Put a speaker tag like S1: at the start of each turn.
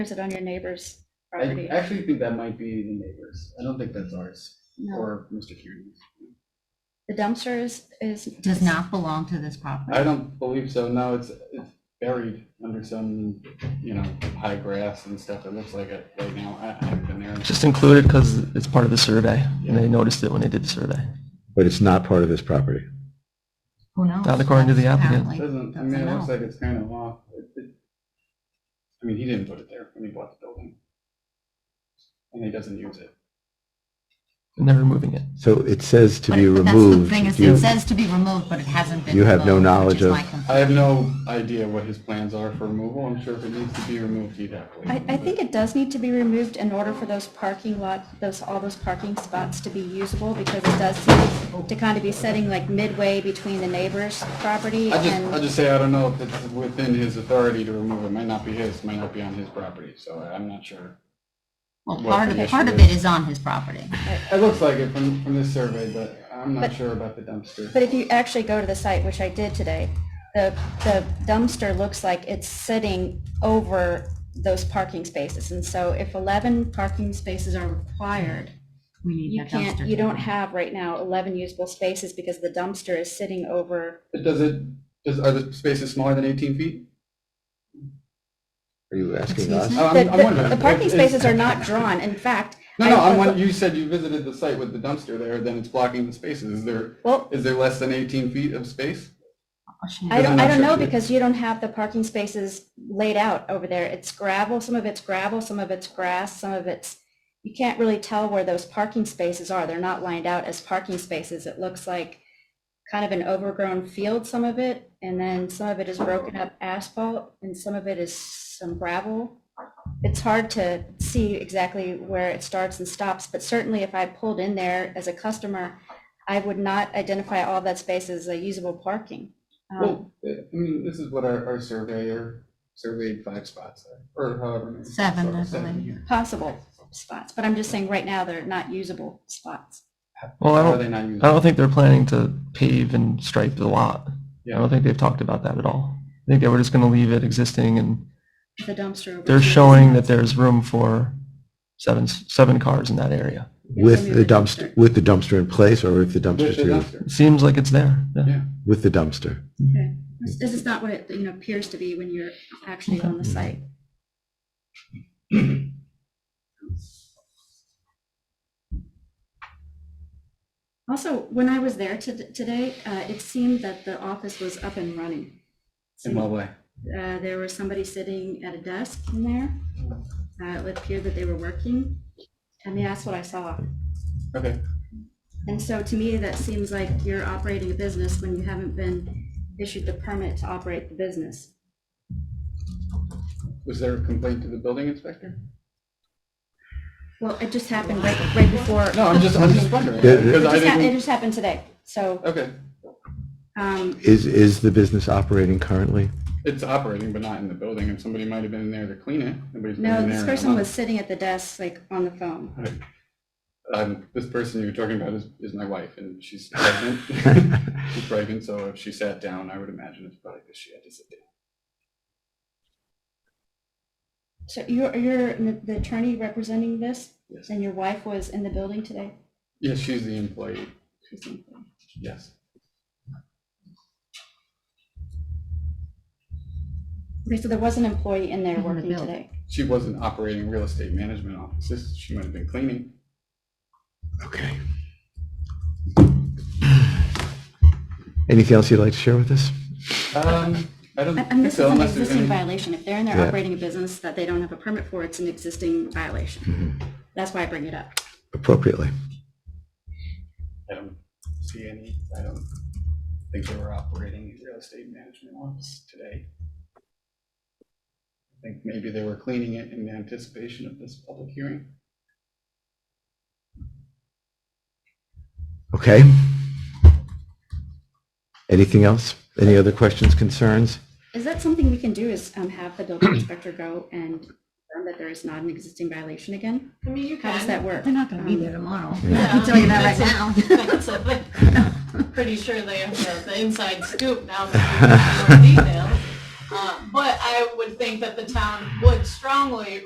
S1: Is it on your neighbor's
S2: I
S1: property?
S2: actually think that might be the neighbors. I don't think that's ours
S1: No,
S2: or Mr. Kearney.
S1: the dumpster is, is.
S3: does not belong to this
S2: I
S3: property.
S2: don't believe so. No, it's, it's buried under some, you know, high grass and stuff. It looks like it right now. I I haven't been there.
S4: Just included because it's part of the survey, and they noticed it when they did the survey.
S5: But it's not part of this property.
S3: Who knows?
S4: Not according to the applicant.
S3: Apparently,
S2: Doesn't, I
S3: that's a
S2: mean, it looks
S3: no.
S2: like it's kind of off. It- it- I mean, he didn't put it there when he bought the building. And he doesn't use it.
S4: And they're removing it.
S5: So it says to
S3: But
S5: be
S3: it- that's the
S5: removed.
S3: thing is,
S5: You-
S3: It says to be removed, but it hasn't been.
S5: you have no
S3: removed, which
S5: knowledge
S3: is
S5: of-
S3: my complaint.
S2: I have no idea what his plans are for removal. I'm sure if it needs to be removed, he'd have to.
S1: I, I think it does need to be removed in order for those parking lot, those, all those parking spots to be usable because it does seem to kind of be setting like midway between the neighbor's property
S2: I just, I
S1: and,
S2: just say, I don't know if it's within his authority to remove it, might not be his, might not be on his property, so I- I'm not sure.
S3: Well,
S2: what
S3: part
S2: the
S3: of,
S2: issue
S3: part of
S2: is.
S3: it is on his property.
S2: It looks like it from, from this survey, but I'm not
S1: But-
S2: sure about the dumpster.
S1: but if you actually go to the site, which I did today, the, the dumpster looks like it's sitting over those parking spaces. And so if 11 parking spaces are required,
S3: We need
S1: You
S3: that dumpster.
S1: can't, you don't have right now 11 usable spaces because the dumpster is sitting over,
S2: But Does it, does, are the spaces smaller than 18 feet?
S5: Are you asking
S3: Excuse
S5: us?
S3: me?
S2: I- I'm-
S1: the,
S2: I'm
S1: the-
S2: wondering
S1: the parking
S2: if-
S1: spaces
S2: if-
S1: are not drawn. In fact.
S2: No, no,
S1: I-
S2: I'm, wondering- you said you visited the site with the dumpster there, then it's blocking the spaces, is there,
S1: Well,
S2: is there less than 18 feet of space?
S3: Oh, she-
S1: I don't,
S2: I'm
S1: I
S2: not
S1: don't
S2: sure
S1: know
S2: if you-
S1: because you don't have the parking spaces laid out over there. It's gravel, some of it's gravel, some of it's grass, some of it's, you can't really tell where those parking spaces are. They're not lined out as parking spaces. It looks like kind of an overgrown field, some of it, and then some of it is broken up asphalt, and some of it is some gravel. It's hard to see exactly where it starts and stops, but certainly if I pulled in there as a customer, I would not identify all that space as a usable parking. Um,
S2: Well, I I mean, this is what our, our surveyor surveyed five spots, or however. many.
S3: Seven, I believe.
S2: here.
S1: Possible spots, but I'm just saying right now they're not usable spots.
S4: Well, I
S2: How are
S4: don't,
S2: they not using?
S4: I don't think they're planning to pave and stripe the lot. I
S2: Yeah.
S4: don't think they've talked about that at all. I think they were just going to leave it existing, and
S1: The dumpster. over
S4: they're
S1: here.
S4: showing that there's room for seven, seven cars in that area.
S5: With the dumpster, with the dumpster in place or with the dumpster
S2: With the
S5: through?
S2: dumpster.
S4: It seems like it's there. yeah.
S2: Yeah.
S5: With the dumpster.
S1: Okay. This this is not what it, you know, appears to be when you're actually on the site. Also, when I was there to- today, uh, it seemed that the office was up and running.
S2: In what way?
S1: Uh, There was somebody sitting at a desk in there. Uh, It appeared that they were working. I mean, that's what I saw.
S2: Okay.
S1: And so to me, that seems like you're operating a business when you haven't been issued the permit to operate the business.
S2: Was there a complaint to the building inspector?
S1: Well, it just happened right, right before, it
S2: No, I'm just, I'm just wondering.
S5: Yeah, yeah.
S2: Because I
S1: just, hap- it
S2: didn't,
S1: just happened today. So,
S2: okay,
S1: um,
S5: Is, is the business operating currently?
S2: it's operating, but not in the building, and somebody might have been in there to clean it. Nobody's been
S1: no,
S2: in
S1: this
S2: there in a
S1: person was
S2: month.
S1: sitting at the desk, like, on the phone.
S2: Um, this person you're talking about is, is my wife, and she's pregnant. She's pregnant, so if she sat down, I would imagine it's probably because she had to sit down.
S1: So you're, you're the attorney representing this,
S2: Yes.
S1: and your wife was in the building today?
S2: Yes, she's the employee,
S1: She's in the-
S2: yes.
S1: Okay, so there was an employee in there
S3: In the
S1: working
S3: building.
S1: today.
S2: She wasn't operating real estate management offices, she might have been cleaning.
S5: Okay. Anything else you'd like to share with us?
S2: Um, I don't
S1: I- And
S2: think
S1: this
S2: so,
S1: is an
S2: unless there's
S1: existing
S2: any.
S1: violation. If they're in there
S5: Yeah.
S1: operating a business that they don't have a permit for, it's an existing violation.
S2: Mm-hmm.
S1: That's why I bring it up.
S5: Appropriately.
S2: I don't see any, I don't think they were operating a real estate management office today. I think maybe they were cleaning it in anticipation of this public hearing.
S5: Okay. Anything else? Any other questions, concerns?
S1: Is that something we can do is um, have the building inspector go and confirm that there is not an existing violation again?
S6: I mean, you can.
S1: How does that work? Um,
S3: They're not going to be there tomorrow.
S6: Yeah.
S3: I'm telling you that right now.
S6: That's a bit- I'm Pretty sure they have the- the inside scoop now. that we know the details. Uh, But I would think that the town would strongly